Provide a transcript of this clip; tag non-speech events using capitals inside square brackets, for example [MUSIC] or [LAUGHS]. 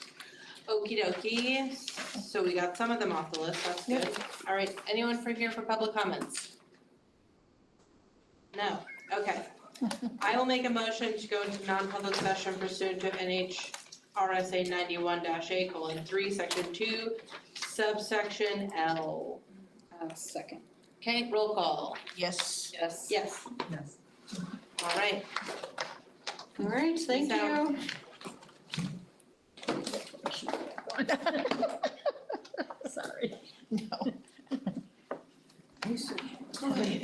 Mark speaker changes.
Speaker 1: Okie dokie, so we got some of them off the list, that's good. All right, anyone for here for public comments? No, [LAUGHS] okay. I will make a motion to go into non-public session pursuant to NH RSA ninety-one A colon three, section two, subsection L.
Speaker 2: Uh, Second.
Speaker 1: Okay, roll call.
Speaker 2: Yes.
Speaker 1: Yes. Yes,
Speaker 2: Yes.
Speaker 1: all right.
Speaker 2: All right,
Speaker 1: thank you.
Speaker 2: Sorry. No.